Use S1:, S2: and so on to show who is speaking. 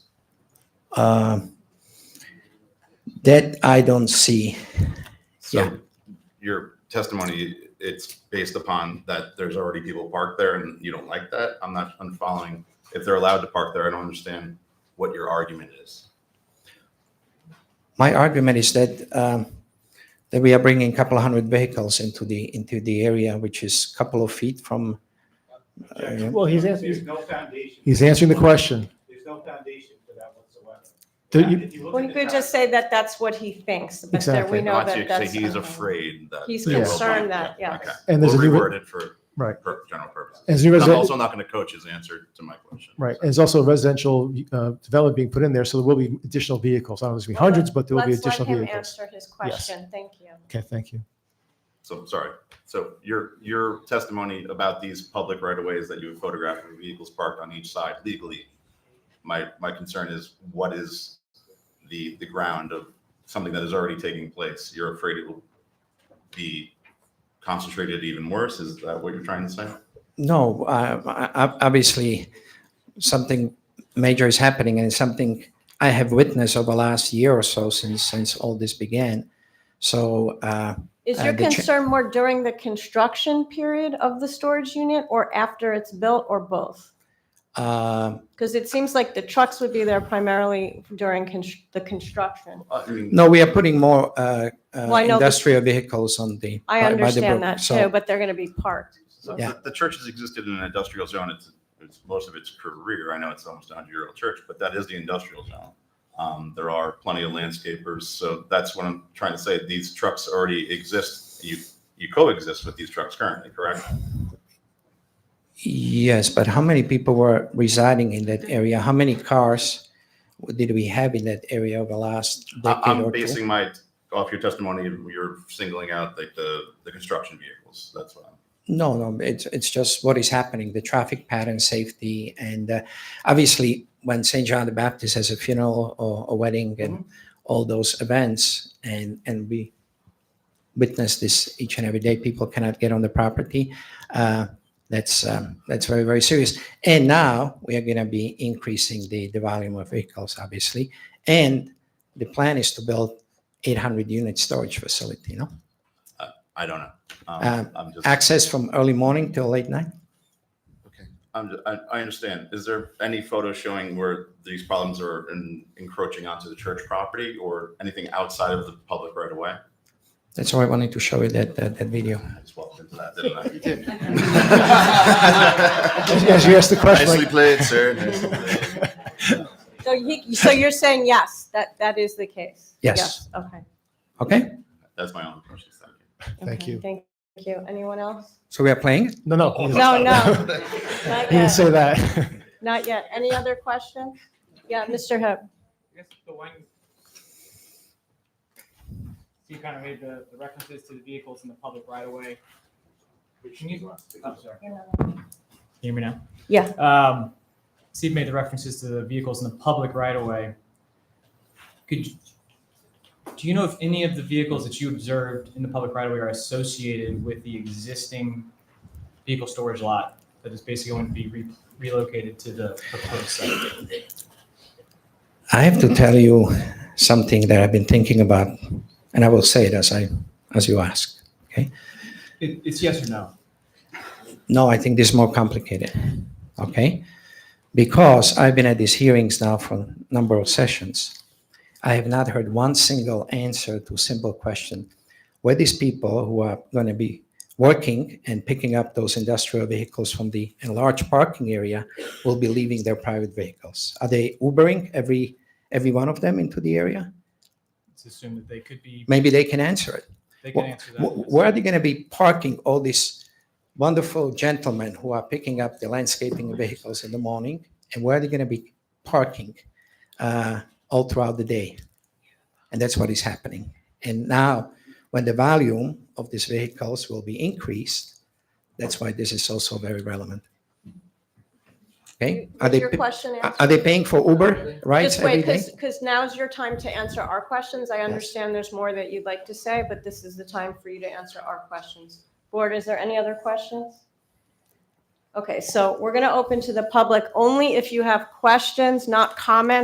S1: Um, That I don't see. Yeah.
S2: So your testimony, it's based upon that there's already people parked there and you don't like that? I'm not, I'm following. If they're allowed to park there, I don't understand what your argument is.
S1: My argument is that, um, that we are bringing a couple of hundred vehicles into the, into the area, which is a couple of feet from. uh, yeah.
S3: Well, he's
S4: There's
S3: answering,
S4: no foundation.
S3: he's answering the question.
S4: There's no foundation for that whatsoever.
S3: Do you-
S4: If you look
S5: Well,
S4: at
S5: you
S4: the
S5: could just
S4: document-
S5: say that that's what he thinks, but there
S3: Exactly.
S5: we know
S2: So
S5: that
S2: you
S5: that's.
S2: say He's afraid that.
S5: He's
S2: they will be-
S5: concerned that, yes.
S2: Okay.
S3: And there's
S2: We'll
S3: a new-
S2: reword it for.
S3: Right.
S2: For general purposes.
S3: As new
S2: And I'm
S3: residential.
S2: also not going to coach his answer to my question.
S3: Right, and there's also residential uh, development being put in there, so there will be additional vehicles. I don't know if it's gonna be hundreds, but there will be
S5: Let's let
S3: additional
S5: him
S3: vehicles.
S5: answer his question. Thank you.
S3: Okay, thank you.
S2: So, sorry. So your, your testimony about these public right-of-ways that you have photographed with vehicles parked on each side legally, my, my concern is what is the, the ground of something that is already taking place? You're afraid it will be concentrated even worse? Is that what you're trying to say?
S1: No, uh, I- I- obviously, something major is happening and it's something I have witnessed over the last year or so since, since all this began. So, uh,
S5: Is
S1: Uh,
S5: your
S1: the cha-
S5: concern more during the construction period of the storage unit or after it's built or both?
S1: uh,
S5: Because it seems like the trucks would be there primarily during constr- the construction.
S2: Uh, I mean,
S1: no, we are putting more, uh,
S5: Well, I
S1: uh,
S5: know the-
S1: industrial vehicles on the. by- by
S5: I
S1: the
S5: understand
S1: brook.
S5: that
S1: So-
S5: too, but they're going to be parked.
S2: So
S1: Yeah.
S2: The the church has existed in an industrial zone, it's, it's most of its career, I know it's almost a hundred-year-old church, but that is the industrial zone. Um, there are plenty of landscapers, so that's what I'm trying to say, these trucks already exist, you, you coexist with these trucks currently, correct?
S1: Yes, but how many people were residing in that area? How many cars did we have in that area over the last
S2: I-
S1: decade
S2: I'm
S1: or two?
S2: basing my, off your testimony, you're singling out like the, the construction vehicles, that's what I'm.
S1: No, no, it's, it's just what is happening, the traffic pattern, safety, and uh, obviously when St. John the Baptist has a funeral or a wedding and all those events, and, and we witness this each and every day, people cannot get on the property. uh, That's, um, that's very, very serious. And now we are going to be increasing the, the volume of vehicles, obviously. And the plan is to build 800 unit storage facility, no?
S2: I don't know.
S1: Um,
S2: Um, I'm just.
S1: Access from early morning till late night?
S2: Okay, I'm, ju- I, I understand. Is there any photo showing where these problems are en- encroaching onto the church property or anything outside of the public right away?
S1: That's why I wanted to show you that, that, that video.
S2: I just walked into that, didn't I?
S3: As as you asked the question, like,
S2: played, sir. Nicely played.
S5: So he, so you're saying yes, that, that is the case?
S1: Yes.
S5: Okay.
S1: Okay?
S2: That's my only question. Thank you.
S3: Thank
S5: Okay,
S3: you.
S5: Thank you. Anyone else?
S1: So we are playing?
S3: no, no. he doesn't-
S5: No, no,
S3: He
S5: not
S3: didn't
S5: yet,
S3: say that.
S5: not yet. Any other questions? Yeah, Mr. Hip.
S4: I guess the one. So you kind of made the, the references to the vehicles in the public right of way. Can you, I'm sorry. Can you hear me now?
S5: Yeah.
S4: Um, Steve made the references to the vehicles in the public right of way. Could, you- do you know if any of the vehicles that you observed in the public right of way are associated with the existing vehicle storage lot that is basically going to be re- relocated to the proposed site?
S1: I have to tell you something that I've been thinking about, and I will say it as I, as you ask.
S4: It, it's yes or no?
S1: No, I think this is more complicated, okay? Because I've been at these hearings now for a number of sessions. I have not heard one single answer to a simple question. Were these people who are going to be working and picking up those industrial vehicles from the enlarged parking area will be leaving their private vehicles? Are they Ubering every, every one of them into the area?
S4: Let's assume that they could be,
S1: Maybe they can answer it.
S4: they can
S1: Wh-
S4: answer that.
S1: Wh- Where are they going to be parking all these wonderful gentlemen who are picking up the landscaping vehicles in the morning? And where are they going to be parking uh, all throughout the day? And that's what is happening. And now, when the volume of these vehicles will be increased, that's why this is also very relevant. Okay? Are
S5: Was
S1: they,
S5: your
S1: pa-
S5: question
S1: are-
S5: answered?
S1: are they paying for Uber rides
S5: Just wait,
S1: every day?
S5: because, now's your time to answer our questions. I understand there's more that you'd like to say, but this is the time for you to answer our questions. Board, is there any other questions? Okay, so we're going to open to the public only if you have questions, not comments.